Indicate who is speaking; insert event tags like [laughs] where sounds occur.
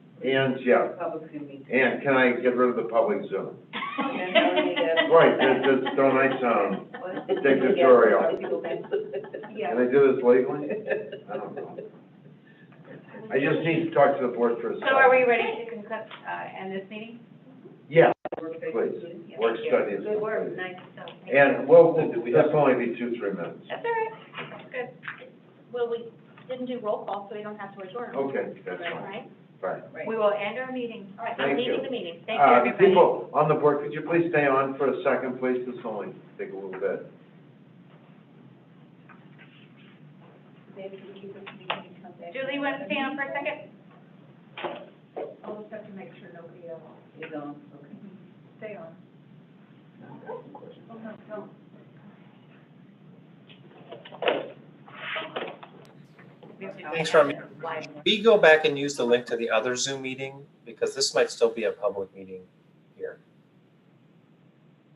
Speaker 1: and Jeff,
Speaker 2: Public can meet.
Speaker 1: and can I get rid of the public Zoom?
Speaker 2: Right,
Speaker 1: Right, that's, that's, don't I sound
Speaker 2: What?
Speaker 1: dictatorial?
Speaker 2: Yeah.
Speaker 1: Can I do this
Speaker 3: [laughs]
Speaker 1: legally? I don't know. I just need to talk to the board for a
Speaker 3: So
Speaker 1: second.
Speaker 3: are we ready to conclude, uh, end this meeting?
Speaker 1: Yeah,
Speaker 2: Please.
Speaker 1: work study is
Speaker 3: Good work,
Speaker 1: completed.
Speaker 3: nice, so.
Speaker 1: And we'll, that's only be two, three minutes.
Speaker 3: That's all right, good. Well, we didn't do roll call, so we don't have to adjourn.
Speaker 1: Okay, that's
Speaker 3: All
Speaker 1: fine,
Speaker 3: right,
Speaker 1: fine.
Speaker 3: we will end our meeting. All right, I'm
Speaker 1: Thank you.
Speaker 3: leaving the meeting. Thank you,
Speaker 1: Uh,
Speaker 3: everybody.
Speaker 1: People on the board, could you please stay on for a second, please? This will only take a little bit.
Speaker 3: Julie, you want to stay on for a second?
Speaker 2: I'll just have to make sure nobody else is on, okay? Stay on. Oh, no, no.
Speaker 4: Thanks, Remy. We go back and use the link to the other Zoom meeting, because this might still be a public meeting here.